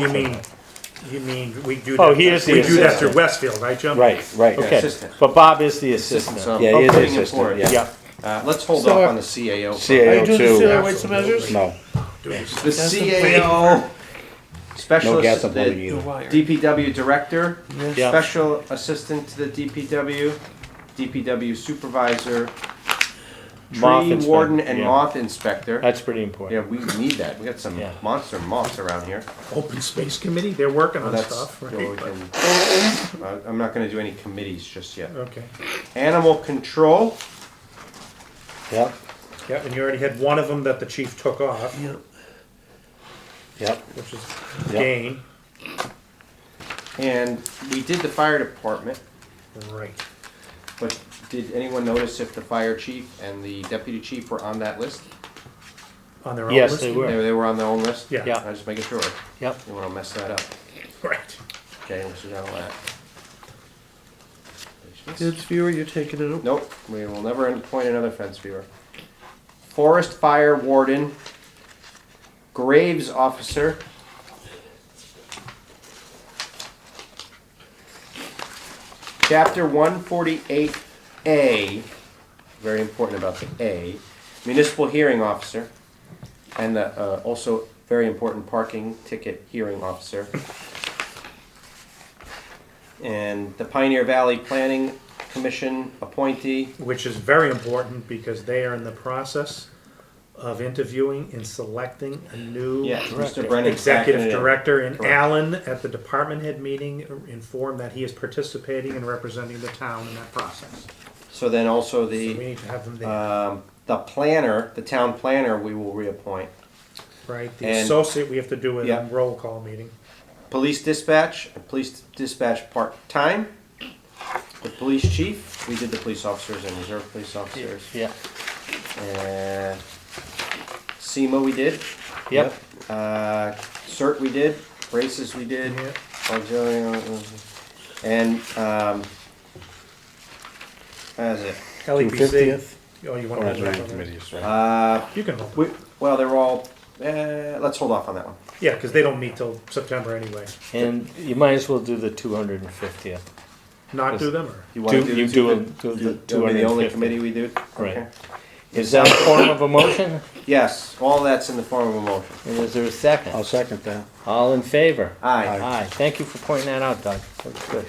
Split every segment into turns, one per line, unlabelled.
You mean, you mean, we do that.
Oh, he is the
We do that through
assistant.
Westfield, right, Jim?
Right, right. Okay,
assistant.
but Bob is the
Assistant,
assistant.
so I'm
Yeah, he is the
putting him
assistant,
forward.
yeah.
Yeah.
Uh, let's hold
So
off
our-
on the CAO. for-
CAO
do the
two,
CAO weights and measures?
no,
Do this.
The CAO
no gas
specialist,
and plumbing
the
either.
DPW director,
Yeah.
special assistant to the DPW, DPW supervisor,
Moth
tree
inspector,
warden and
yeah.
moth inspector.
That's pretty
Yeah,
important.
we need that. We got some
Yeah.
monster moths around here.
Open Space Committee, they're working
Well,
on
that's,
stuff,
you know, we
right? but-
can- I- I'm not gonna do any committees just yet.
Okay,
Animal control,
Yep,
yeah, and you already had one of them that the chief took off,
yep,
which is
Yeah.
Gain,
and we did the fire department.
right.
But did anyone notice if the fire chief and the deputy chief were on that list?
On their own list?
Yes, they
They
were.
were, they were on their own list?
Yeah.
Yeah.
I was just making sure.
yep.
Didn't wanna mess that up.
Right.
Okay, which is all that.
Kids viewer, you're taking it.
Nope, we will never appoint another fence viewer. Forest fire warden, graves officer. Chapter one forty-eight A, very important about the A, municipal hearing officer. And the, uh, also very important parking ticket hearing officer. And the Pioneer Valley Planning Commission appointee,
Which is very important because they are in the process of interviewing and selecting a new
Yeah, Mr. Brennan.
executive director. And
Correct.
Alan, at the department head meeting, informed that he is participating and representing the town in that process.
So then also
So we
the,
need to have them there,
um, the planner, the town planner, we will reappoint.
right? The
and-
associate, we have to do a
Yeah.
roll call meeting.
Police dispatch, police dispatch part-time. The police chief, we did the police officers and reserve police officers.
Yeah,
And SEMA we did.
yep,
Uh, CERT we did, races we did.
Yeah.
Auxiliary, uh, uh, And, um, that's it.
LEPC.
250th?
E Oh, you want
Or
to
as
hold
many
that one?
committees, right?
Uh,
You can hold. it.
we, well, they're all, uh, let's hold off on that one.
Yeah, because they don't meet till September anyway.
And you might as well do the two hundred and fiftieth.
Not
Yes.
do them or?
You
Do,
want to do
you
the
do,
two
a- do the
That'll
two
be
hundred
the only
and
committee
fifty.
we do?
Right.
Okay.
Is that a form of a motion?
Yes, all that's in the form of a motion.
And is there a second?
I'll second that.
All in favor?
Aye.
Aye, thank you for pointing that out, Doug. That's good.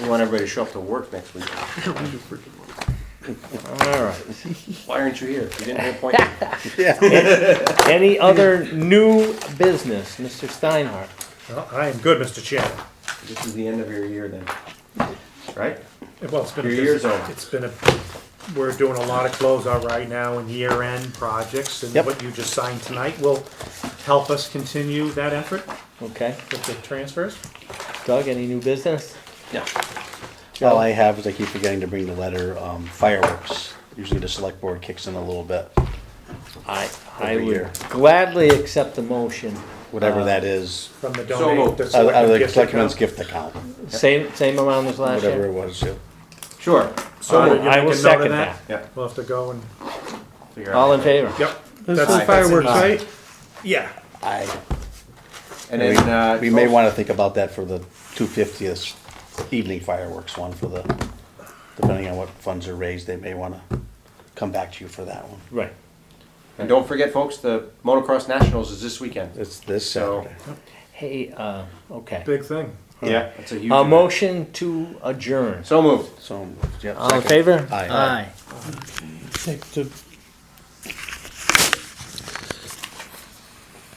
We want everybody to show up to work next week.
All right.
Why aren't you here? You didn't get appointed.
Any other new business, Mr. Steinhardt?
Well, I am good, Mr. Chairman.
This is the end of your year then. Right?
Well, it's been. a
Your
busy-
year's over.
It's been a, we're doing a lot of closeout right now and year-end projects. And
Yep.
what you just signed tonight will help us continue that effort
Okay,
with the transfers.
Doug, any new business?
Yeah.
All I have is I keep forgetting to bring the letter, um, fireworks. Usually the select board kicks in a little bit,
I, I
Over
would
here.
gladly accept the motion.
whatever
Uh,
that is,
From the
So
donate.
moved.
the
out out of
selectmen's
the
gift
selectmen's
account.
gift account,
Same, same amount as last
whatever
year?
it was. yeah.
Sure.
So
Uh, I-
would you make
I will
a note of
second
that. Yeah.
We'll have to go and,
Figure out.
All in favor?
yep.
is
that's-
the
that's it.
fireworks, right?
Yeah,
I,
And
we,
then, uh.
we may wanna think about that for the two fiftieth evening fireworks one for the, depending on what funds are raised, they may wanna come back to you for that one.
Right.
And don't forget, folks, the motocross nationals is this weekend.
It's this
So-
Saturday.
Hey, uh, okay.
big thing.
Yeah. That's a huge.
A
event.
motion to adjourn.
So moved.
So, yeah.
All in
second.
favor?
Aye.
Aye.
Take the